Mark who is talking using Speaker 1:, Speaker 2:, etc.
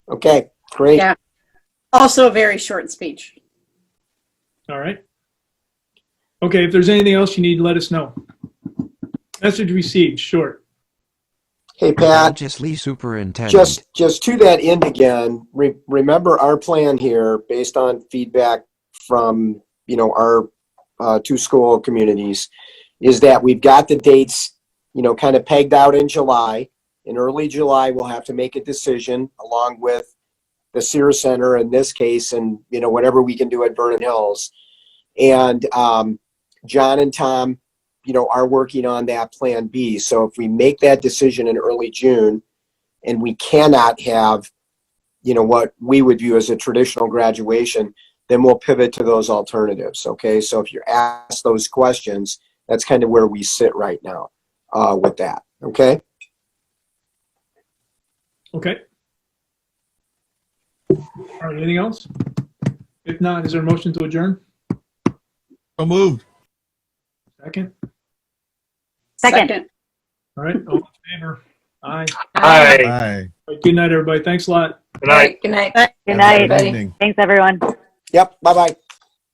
Speaker 1: Okay, great.
Speaker 2: Yeah. Also a very short speech.
Speaker 3: All right. Okay, if there's anything else you need, let us know. Message received, short.
Speaker 1: Hey, Pat,
Speaker 4: Religiously superintendent.
Speaker 1: just, just to that end again, re- remember our plan here based on feedback from, you know, our, uh, two school communities is that we've got the dates, you know, kind of pegged out in July. In early July, we'll have to make a decision along with the Sears Center in this case and, you know, whatever we can do at Vernon Hills. And, um, John and Tom, you know, are working on that plan B. So if we make that decision in early June, and we cannot have, you know, what we would view as a traditional graduation, then we'll pivot to those alternatives. Okay, so if you're asked those questions, that's kind of where we sit right now uh, with that. Okay,
Speaker 3: Okay. All right, anything else? If not, is there a motion to adjourn?
Speaker 5: So moved.
Speaker 3: Second?
Speaker 2: Second.
Speaker 3: All right, all in favor? Aye.
Speaker 6: Hi.
Speaker 5: Aye.
Speaker 3: All right, Good night, everybody. Thanks a lot.
Speaker 6: Good night.
Speaker 7: Good night.
Speaker 2: Good
Speaker 5: Have a
Speaker 2: night.
Speaker 5: good evening.
Speaker 7: Thanks, everyone.
Speaker 1: yep, bye bye.